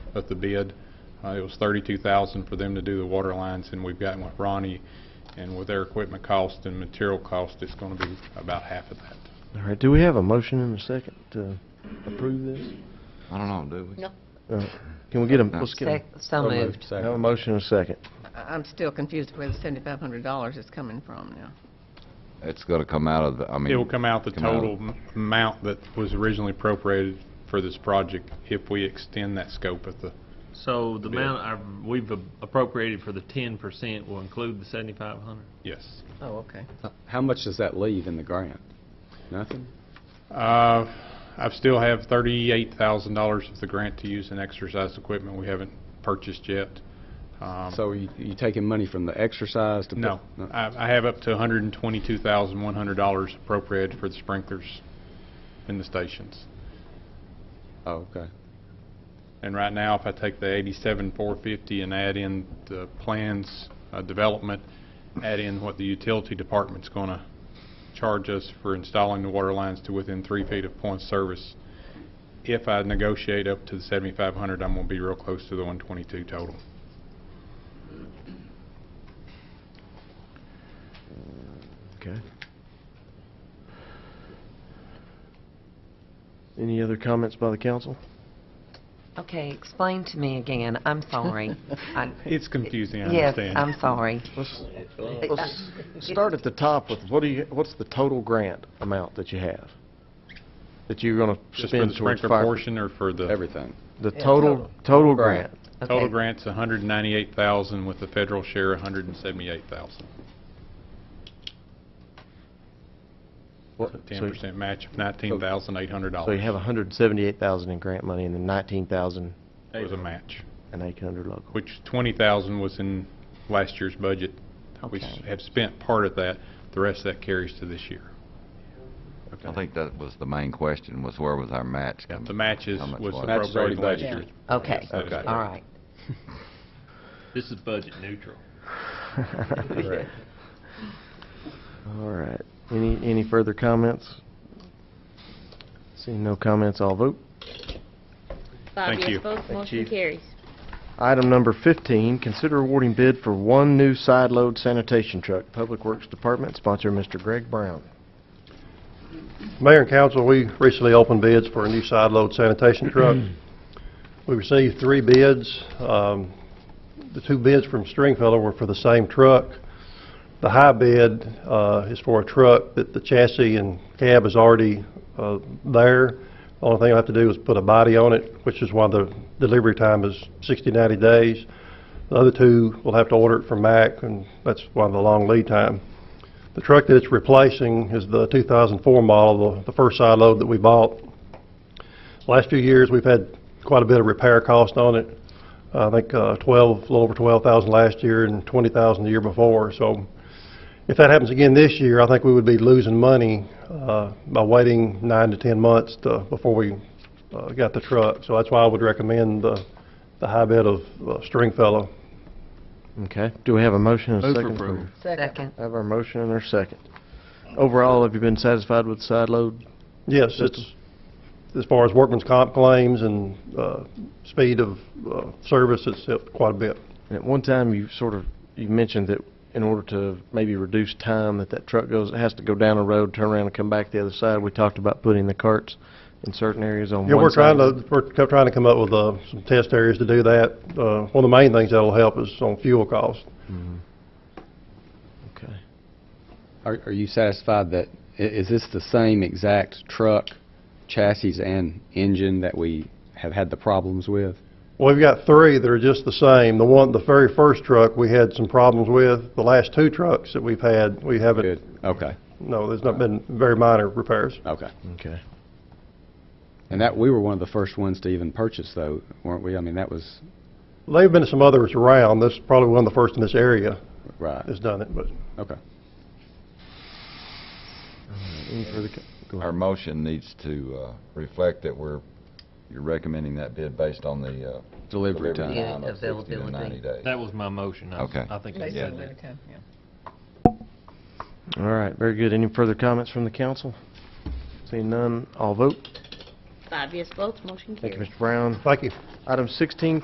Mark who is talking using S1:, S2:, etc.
S1: at the bid. Uh, It was $32,000 for them to do the water lines, and we've gotten with Ronnie, and with their equipment cost and material cost, it's going to be about half of that.
S2: All right, do we have a motion and a second to approve this?
S3: I don't know, do we?
S4: No.
S2: Uh, Can we get a, let's get a,
S4: Sec- So moved.
S2: have a motion and a second.
S4: I- I'm still confused where the $7,500 is coming from now.
S3: It's gonna come out of, the I mean.
S1: It will come out the
S3: come out of-
S1: total m- amount that was originally appropriated for this project if we extend that scope at the,
S5: So the
S1: Bid.
S5: amount I've- we've appropriated for the 10% will include the 7,500?
S1: yes.
S4: Oh, okay.
S6: How much does that leave in the grant? Nothing?
S1: Uh, I still have $38,000 of the grant to use in exercise equipment we haven't purchased yet. Um,
S6: So you you taking money from the exercise to? put-
S1: No, I I have up to $122,100 appropriated for the sprinklers in the stations.
S6: Oh, okay.
S1: And right now, if I take the eighty-seven, four fifty and add in the plans, uh, development, add in what the utility department's gonna charge us for installing the water lines to within three feet of point of service, if I negotiate up to the seventy-five hundred, I'm gonna be real close to the one twenty-two total.
S2: Okay. Any other comments by the council?
S7: Okay, explain to me again, I'm sorry. I-
S1: It's confusing, I
S7: Yes,
S1: understand.
S7: I'm sorry.
S2: Let's, let's start at the top with, what do you, what's the total grant amount that you have? That you're gonna
S1: Just for the
S2: spend towards
S1: sprinkler
S2: fire?
S1: portion or for the?
S6: Everything.
S2: The
S4: Yeah,
S2: total, total grant.
S1: Total
S7: Okay.
S1: grant's a hundred and ninety-eight thousand, with the federal share, a hundred and seventy-eight thousand.
S2: What-
S1: Ten
S2: so-
S1: percent match of nineteen thousand eight hundred dollars.
S2: So you have hundred and seventy-eight thousand in grant money and then nineteen thousand
S1: Was a match,
S2: and eight hundred local.
S1: which twenty thousand was in last year's budget. We s-
S7: Okay.
S1: have spent part of that, the rest of that carries to this year.
S3: I think that was the main question, was where was our match
S1: Yeah,
S3: coming?
S1: The matches
S3: how much
S1: was
S3: was it?
S6: Match is already
S1: appropriated last
S6: budgeted.
S1: year.
S7: Okay,
S1: Yes, that is
S7: all right.
S5: This is budget neutral.
S6: Correct.
S2: All right. Any, any further comments? Seeing no comments, I'll vote.
S1: Thank
S8: Five
S1: you.
S8: yes votes, motion carries.
S2: Item number 15, consider awarding bid for one new side load sanitation truck, Public Works Department, sponsor Mr. Greg Brown.
S9: Mayor and council, we recently opened bids for a new side load sanitation truck. We received three bids. Um, The two bids from Stringfellow were for the same truck. The high bid uh, is for a truck that the chassis and cab is already uh, there. Only thing I have to do is put a body on it, which is why the delivery time is 60, 90 days. The other two, we'll have to order it from Mack, and that's why the long lead time. The truck that it's replacing is the 2004 model, the- the first side load that we bought. Last few years, we've had quite a bit of repair cost on it. I think uh, 12, a little over 12,000 last year and 20,000 the year before. So if that happens again this year, I think we would be losing money uh, by waiting nine to 10 months to- before we uh, got the truck. So that's why I would recommend the the high bid of uh, Stringfellow.
S2: Okay. Do we have a motion and a
S5: Move for
S2: second?
S5: approval.
S7: Second.
S2: Have our motion and our second. Overall, have you been satisfied with the side load?
S9: Yes,
S2: That's-
S9: it's, as far as workman's comp claims and uh, speed of uh, service, it's up quite a bit.
S2: And at one time, you sort of, you mentioned that in order to maybe reduce time that that truck goes, it has to go down a road, turn around and come back the other side. We talked about putting the carts in certain areas on one
S9: Yeah, we're
S2: side.
S9: trying to, we're co- trying to come up with uh, some test areas to do that. Uh, One of the main things that'll help is on fuel cost.
S2: Okay.
S6: Are are you satisfied that, i- is this the same exact truck, chassis and engine that we have had the problems with?
S9: Well, We've got three that are just the same. The one, the very first truck, we had some problems with. The last two trucks that we've had, we haven't,
S6: Good, okay,
S9: no, there's not been very minor repairs.
S6: okay.
S2: Okay.
S6: And that, we were one of the first ones to even purchase though, weren't we? I mean, that was,
S9: They've been some others around. This is probably one of the first in this area
S6: right,
S9: that's done it, but.
S6: okay.
S2: Any further co- go ahead.
S3: Our motion needs to uh, reflect that we're, you're recommending that bid based on the uh,
S6: Delivery
S3: delivery
S6: time.
S3: time of 60 to
S7: Availability.
S3: 90 days.
S5: That was my motion. I-
S3: Okay.
S5: I think I
S4: They
S5: said
S4: said
S5: that.
S4: that, okay, yeah.
S2: All right, very good. Any further comments from the council? Seeing none, all vote.
S8: Five yes votes, motion
S2: Thank you,
S8: carries.
S2: Mr. Brown.
S9: Thank you.
S2: Item 16,